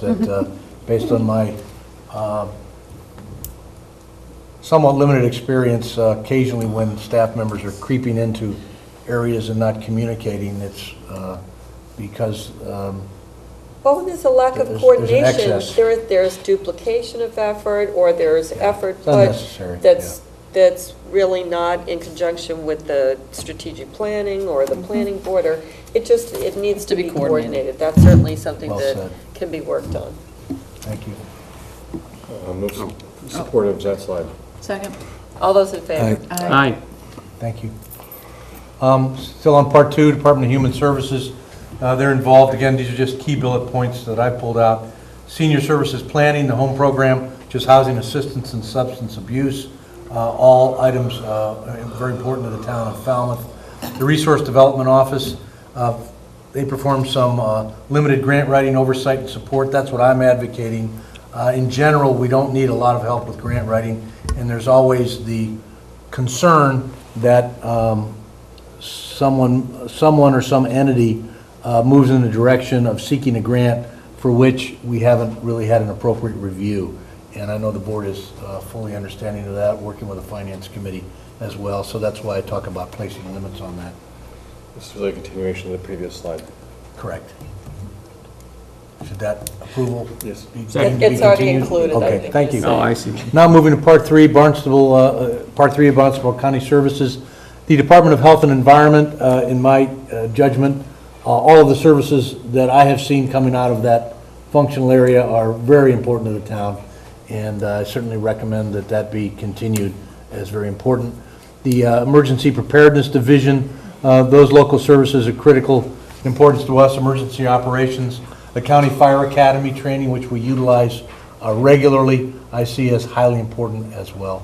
that, uh, based on my uh, somewhat limited experience, uh, occasionally when staff members are creeping into areas and not communicating, it's uh, because, um, Well, there's a lack There's- of there's an coordination. excess. There, there's duplication of effort, or there's effort it's put unnecessary. that's, that's really not in conjunction with the strategic planning or Mm-hmm. the planning board, or it just, it needs to be coordinated. That's certainly something Well that said. can be worked on. Yeah. Thank you. I'm most supportive of that slide. Second. All those in favor? Uh, Aye. Thank you. Um, Still on part two, Department of Human Services, Uh, they're involved, again, these are just key bullet points that I pulled out. Senior Services Planning, the home program, just housing assistance and substance abuse, uh, all items uh, very important to the town of Falmouth. The Resource Development Office, uh, they perform some uh, limited grant writing oversight and support, that's what I'm advocating. Uh, In general, we don't need a lot of help with grant writing, and there's always the concern that um, someone, someone or some entity uh, moves in the direction of seeking a grant for which we haven't really had an appropriate review. And I know the board is uh, fully understanding of that, working with the finance committee as well, so that's why I talk about placing limits on that. This is really a continuation of the previous slide. Correct. Should that approval Yes. be? It's deemed to be It's already continued? included, I Okay, think thank you you. said. Oh, I see. Now moving to Part 3, Barnstable, uh, uh, Part 3 of Barnstable County Services. The Department of Health and Environment, uh, in my uh, judgment, uh, all of the services that I have seen coming out of that functional area are very important to the town, and uh, I certainly recommend that that be continued as very important. The uh, Emergency Preparedness Division, uh, those local services are critical importance to us, emergency operations, the County Fire Academy training, which we utilize uh, regularly, I see as highly important as well.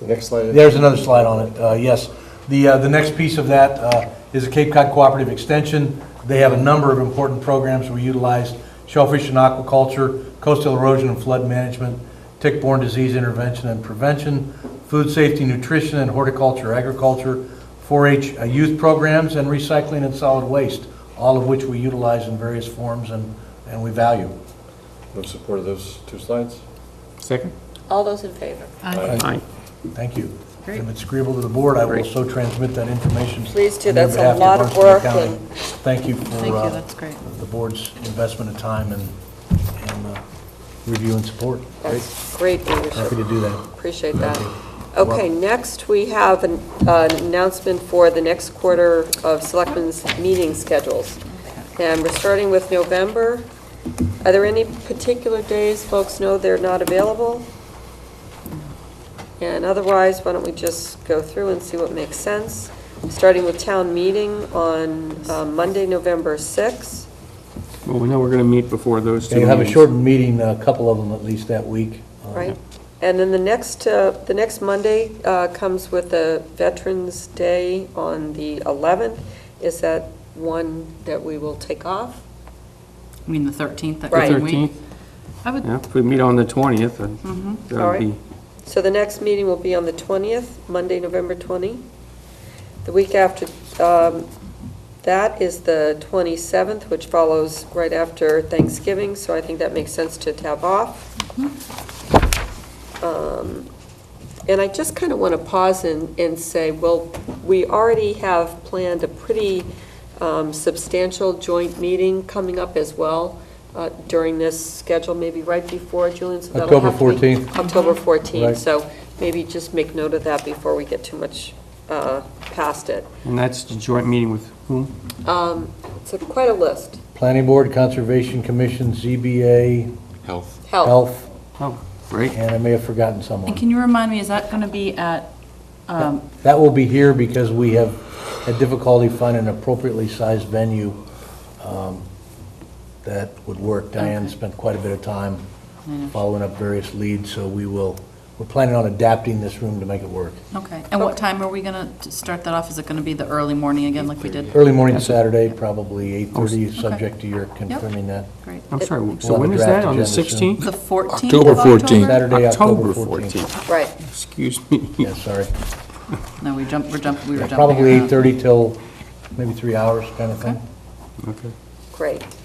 The next slide. There's another slide on it, uh, yes. The, uh, the next piece of that uh, is the Cape Cod Cooperative Extension. They have a number of important programs we utilize, shellfish and aquaculture, coastal erosion and flood management, tick-borne disease intervention and prevention, food safety, nutrition, and horticulture, agriculture, 4-H uh, youth programs, and recycling and solid waste, all of which we utilize in various forms and, and we value. I'm supportive of those two slides. Second? All those in favor? Aye. Aye. Thank you. Great. If it's agreeable to the board, I will Great. so transmit that information. Please do. on your That's a behalf to lot of Barnstable work County. and- Thank you Thank for you, uh, that's great. the board's investment of time and and, uh, review and support. That's great Happy leadership. to do that. Appreciate that. Okay, next, we have an uh, an announcement for the next quarter of Selectmen's meeting schedules. And we're starting with November. Are there any particular days folks know they're not available? And otherwise, why don't we just go through and see what makes sense? Starting with town meeting on uh, Monday, November 6th. Well, we know we're going to meet before those two You'll have a meetings. shortened meeting, a couple of them at least that week. Uh, Right. And then the next, uh, the next Monday uh, comes with the Veterans Day on the 11th. Is that one that we will take off? I mean, the 13th, that The Right. same week. 13th, I would, mm-hmm. yeah, if we meet on the 20th, then that All would right. be, So the next meeting will be on the 20th, Monday, November 20. The week after um, that is the 27th, which follows right after Thanksgiving, so I think that makes sense to tab off. Um, And I just kind of want to pause and, and say, well, we already have planned a pretty um, substantial joint meeting coming up as well uh, during this schedule, maybe right before, Julian, so that'll October have to be- 14th. October 14th, Right. so maybe just make note of that before we get too much uh, past it. and that's the joint meeting with whom? Um, It's a- quite a list. Planning Board, Conservation Commission, ZBA, Health. Health, Health, Oh, great. and I may have forgotten and someone. can you remind me, is that going to be at, um, That will be here because we have had difficulty finding an appropriately sized venue um, that would work. Diane spent quite a bit of time following up various leads, so we will, we're planning on adapting this room to make it work. okay, and what time are we going to start that off? Is it going to be the early morning again, like we did? Early morning Saturday, probably 8:30, Okay. subject to your confirming that. Great. I'm sorry, We'll so have when a is draft that, on the agenda soon. 16th? The 14th of October 14th. Saturday, October October 14th. 14th, right. excuse me. Yeah, sorry. No, we jumped, we're jumping, we were jumping. Probably around. 8:30 till maybe 3 hours kind of thing. Okay. Okay. Great.